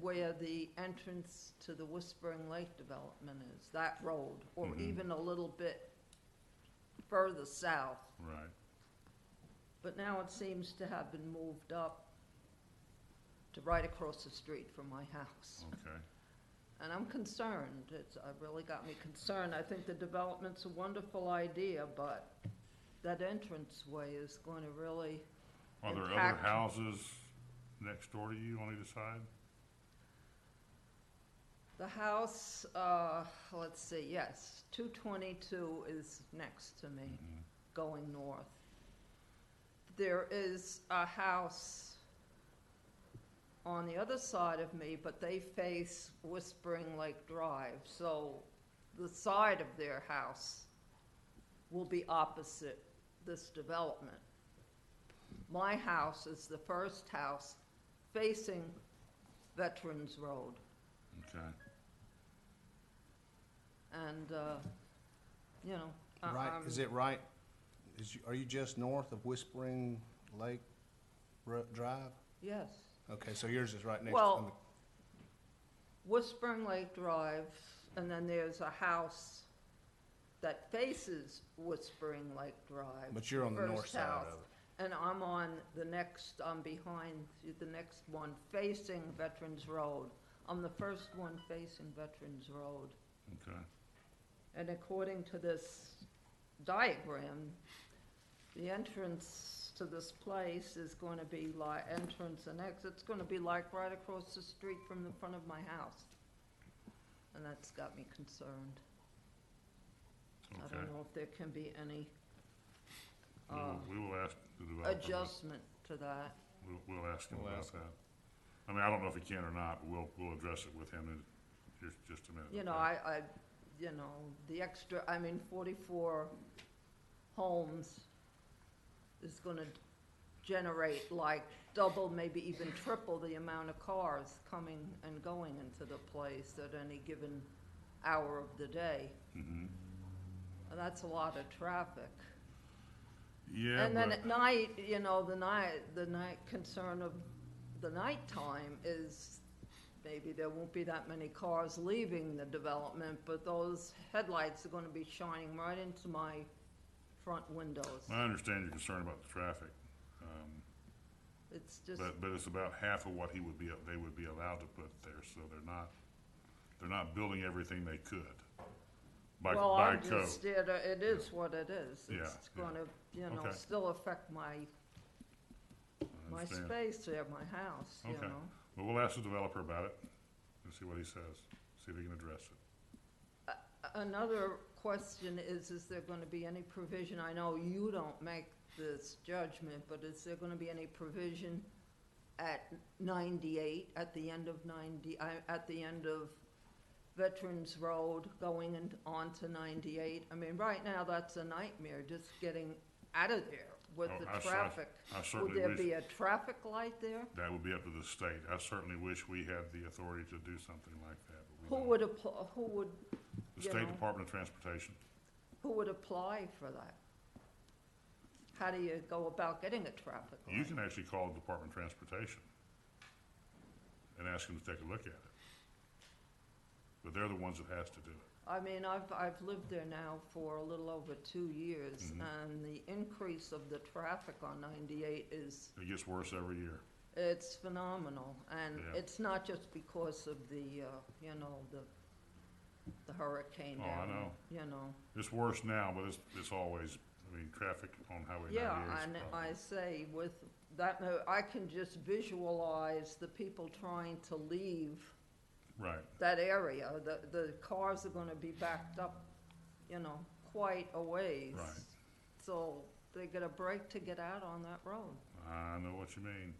where the entrance to the Whispering Lake development is, that road, or Mhm. even a little bit further south. right. But now it seems to have been moved up to right across the street from my house. Okay, And I'm concerned, it's, it really got me concerned. I think the development's a wonderful idea, but that entranceway is going to really, are there other Impact. houses next door to you on either side? the house, uh, let's see, yes, two twenty-two is next to me, Mhm. going north. There is a house on the other side of me, but they face Whispering Lake Drive, so the side of their house will be opposite this development. My house is the first house facing Veterans Road. Okay, And, uh, you know. uh, um, I- Right, I'm- is it right, is, you- are you just north of Whispering Lake Ro- Drive? Yes. Okay, so yours is right next to Well, the. Whispering Lake Drive, and then there's a house that faces Whispering Lake Drive. But you're on the first north side of house, And I'm on the next, I'm behind the next one facing Veterans Road. I'm the first one facing Veterans Road. okay. And according to this diagram, the entrance to this place is going to be like, entrance and exit's going to be like right across the street from the front of my house. And that's got me concerned. I Okay. don't know if there can be any We will- uh, We will ask the developer, but adjustment to that. we'll, we'll ask him We'll about ask that. I mean, I don't know if he can or not, but we'll, we'll address it with him in just, just a minute. You know, okay? I, I, you know, the extra, I mean, forty-four homes is gonna generate like double, maybe even triple the amount of cars coming and going into the place at any given hour of the day. Mhm. And that's a lot of traffic. Yeah, And then but, at night, you know, the night, the night concern of the nighttime is maybe there won't be that many cars leaving the development, but those headlights are gonna be shining right into my front windows. I understand your concern about the traffic, um, It's just, but, but it's about half of what he would be, they would be allowed to put there, so they're not, they're not building everything they could by, well, by I'm code. just, it it is what it is. Yeah, It's yeah. gonna, you know, Okay. still affect my, I my understand. space there, my house, you Okay. know? But we'll ask the developer about it and see what he says, see if he can address it. Another question is, is there gonna be any provision, I know you don't make this judgment, but is there gonna be any provision at ninety-eight, at the end of ninety, I, at the end of Veterans Road going and on to ninety-eight? I mean, right now, that's a nightmare, just getting out of there with Oh, the I cer- traffic. I Would certainly there be wish, a traffic light there? that would be up to the state. I certainly wish we had the authority to do something like that, but we Who don't. would appl- who would, The you State know. Department of Transportation. who would apply for that? How do you go about getting a traffic light? You can actually call the Department of Transportation and ask them to take a look at it. But they're the ones that has to do it. I mean, I've, I've lived there now for a little over two years, Mhm. and the increase of the traffic on ninety-eight is, It gets worse every year. it's phenomenal. And Yeah. it's not just because of the, uh, you know, the, the hurricane Oh, I down, know. you know. It's worse now, but it's, it's always, I mean, traffic on Highway Yeah, ninety-eight is and a problem. I say with that, mo- I can just visualize the people trying to leave Right, that area. The, the cars are gonna be backed up, you know, quite a ways. Right. So they get a break to get out on that road. I know what you mean.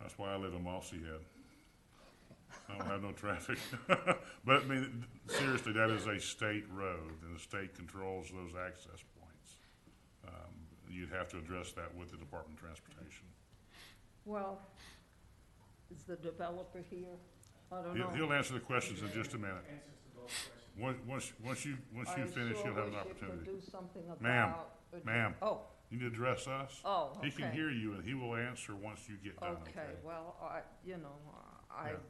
That's why I live in Mossy Head. I don't have no traffic. But I mean, seriously, that is a state road and the state controls those access points. Um, You'd have to address that with the Department of Transportation. Well, is the developer here? I don't He'll, know. he'll answer the questions in just a minute. Once, once, once you, once you I finish, sure you'll have an wish you could opportunity. do something Ma'am, about- ma'am. Oh, You need to address us. oh, okay. He can hear you and he will answer once you get done, Okay, okay? well, I, you know, I Yeah.